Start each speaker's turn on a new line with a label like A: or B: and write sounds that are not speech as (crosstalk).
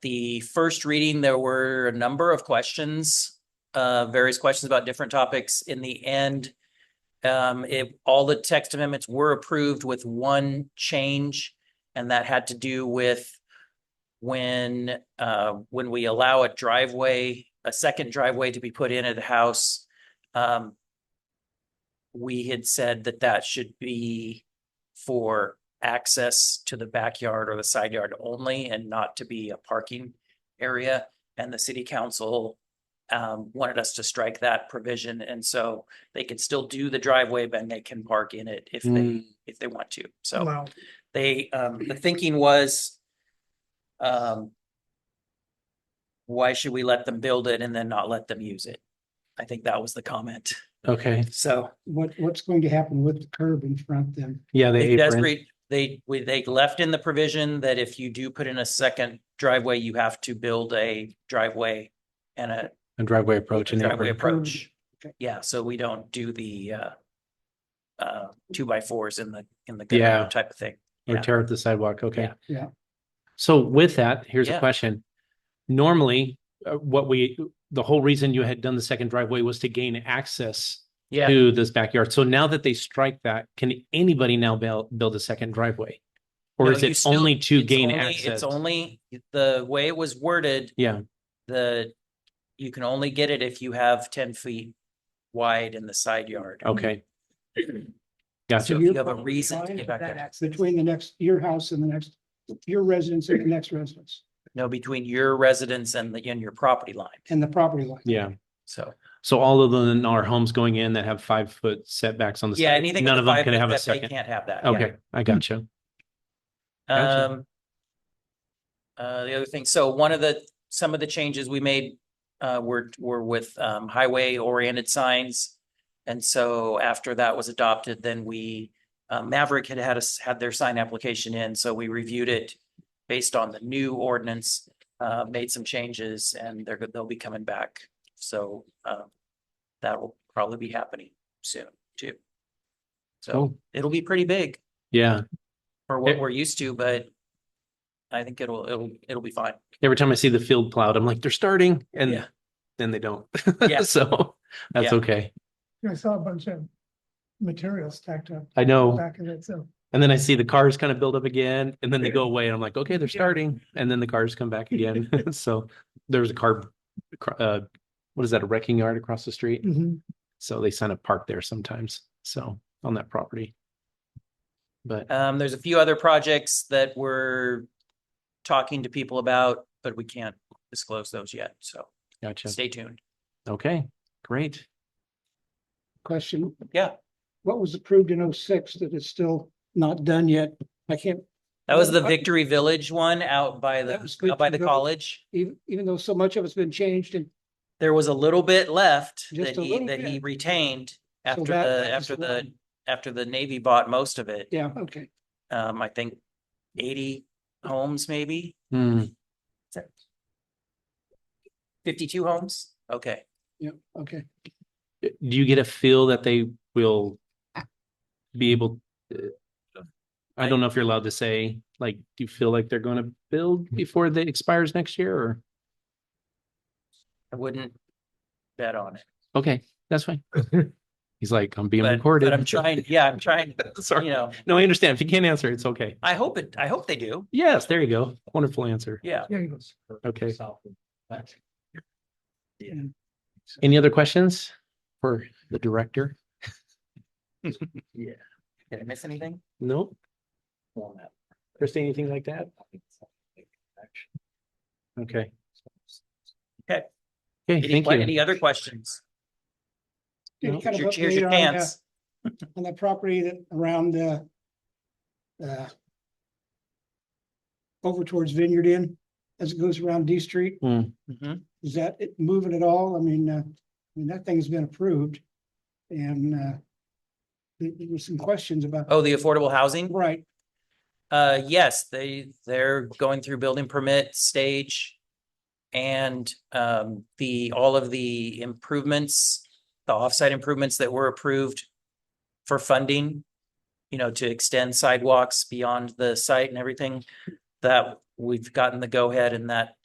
A: the first reading, there were a number of questions, uh, various questions about different topics. In the end, um, it, all the text amendments were approved with one change, and that had to do with when, uh, when we allow a driveway, a second driveway to be put in at the house, um, we had said that that should be for access to the backyard or the side yard only and not to be a parking area. And the city council um, wanted us to strike that provision. And so they can still do the driveway, but they can park in it if
B: Hmm. Mm,
A: they, if they want to. So
C: Wow.
A: they, um, the thinking was, um, why should we let them build it and then not let them use it? I think that was the comment.
B: Okay,
A: So
C: What, what's going to happen with the curb in front then?
B: yeah, they
A: it does
B: apron.
A: read- they, we, they left in the provision that if you do put in a second driveway, you have to build a driveway and a
B: a driveway approach and
A: driveway
B: apron.
A: approach.
B: Mm-hmm.
C: Okay.
A: Yeah, so we don't do the, uh, uh, two by fours in the, in the
B: Yeah.
A: gutter type of thing.
B: or
A: Yeah.
B: tear up the sidewalk. Okay.
C: Yeah.
B: So with that, here's
A: Yeah.
B: a question. Normally, uh, what we, the whole reason you had done the second driveway was to gain access
A: Yeah,
B: to this backyard. So now that they strike that, can anybody now build, build a second driveway? Or
A: No,
B: is
A: you
B: it
A: still-
B: only to
A: it's
B: gain
A: only-
B: access?
A: It's only, the way it was worded,
B: Yeah,
A: the, you can only get it if you have ten feet wide in the side yard.
B: okay.
A: So
B: Gotcha.
A: if you
C: you're
A: have a
C: probably
A: reason to
C: fine
A: get back there,
C: Between the next, your house and the next, your residence and the next residence
A: no, between your residence and the, and your property line,
C: and the property line.
B: Yeah.
A: so.
B: So all of them are homes going in that have five foot setbacks on the.
A: Yeah,
B: side.
A: anything.
B: None
A: with
B: of them
A: five
B: can
A: foot
B: have a
A: that they
B: second.
A: Can't have that. yeah.
B: Okay, I gotcha. Gotcha.
A: Um. Uh, the other thing, so one of the, some of the changes we made, uh, were, were with, um, highway oriented signs. And so after that was adopted, then we, uh, Maverick had had us, had their sign application in, so we reviewed it based on the new ordinance, uh, made some changes and they're, they'll be coming back. So, um, that will probably be happening soon too. So
B: Cool.
A: it'll be pretty big
B: Oh, Yeah.
A: for what
B: Eh.
A: we're used to, but I think it'll, it'll, it'll be fine.
B: every time I see the field plowed, I'm like, they're starting
A: Yeah.
B: and then they don't.
A: Yeah.
B: (laughs) So that's
A: Yeah.
B: okay.
D: I saw a bunch of materials stacked up
B: I know.
D: back in it, so.
B: And then I see the cars kind of build up again and then they go away and I'm like, okay, they're starting. And then the cars come
A: (laughs)
B: back again. (laughs) So there was a car, cr- uh, what is that, a wrecking yard across the street?
C: Mm-hmm.
B: So they sign up park there sometimes. So on that property. But
A: Um, there's a few other projects that we're talking to people about, but we can't disclose those yet. So
B: gotcha.
A: stay tuned.
B: Okay, great.
C: Question.
A: Yeah.
C: What was approved in 06 that is still not done yet? I can't,
A: That was the
C: Well, I-
A: Victory Village one out by
C: That
A: the,
C: was good
A: out by
C: to
A: the
C: know.
A: college.
C: even, even though so much of it's been changed and
A: There was a little bit left
C: Just
A: that
C: a
A: he,
C: little
A: that he
C: bit.
A: retained
C: so
A: after
C: that-
A: the,
C: that was
A: after the,
C: one.
A: after the Navy bought most of it.
C: Yeah, okay.
A: Um, I think eighty homes, maybe
B: Hmm,
A: fifty-two homes. Okay.
C: Yeah, okay.
B: Do you get a feel that they will be able? uh, I don't know if you're allowed to say, like, do you feel like they're going to build
A: Mm-hmm.
B: before they expires next year or?
A: I wouldn't bet on it,
B: Okay, that's
A: (laughs)
B: fine. He's like, I'm being
A: but, but
B: recorded.
A: I'm trying, yeah, I'm trying, you
B: (laughs) Sorry.
A: know,
B: No, I understand. If you can't answer, it's okay.
A: I hope it, I hope they do.
B: Yes, there you go. Wonderful answer.
A: Yeah.
D: Yeah, he goes.
B: Okay.
C: Yeah.
B: Any other questions for
A: (laughs)
B: the director?
A: Did I miss anything?
B: Nope. Christine, anything like that? Okay.
A: Okay. Any,
B: Okay, thank
A: que-
B: you.
A: any other questions?
C: Any kind
A: Here's
C: of
A: your- here's your
C: update on, uh,
A: chance.
C: on that property that around uh uh over towards Vineyard Inn as it goes around D Street,
A: Mhm.
C: is that it moving at all? I mean, uh, I mean, that thing's been approved. And uh there there was some questions about,
A: Oh, the affordable housing?
C: right,
A: Uh, yes, they, they're going through building permit stage. And, um, the, all of the improvements, the offsite improvements that were approved for funding, you know, to extend sidewalks beyond the site and everything, that we've gotten the go-ahead and that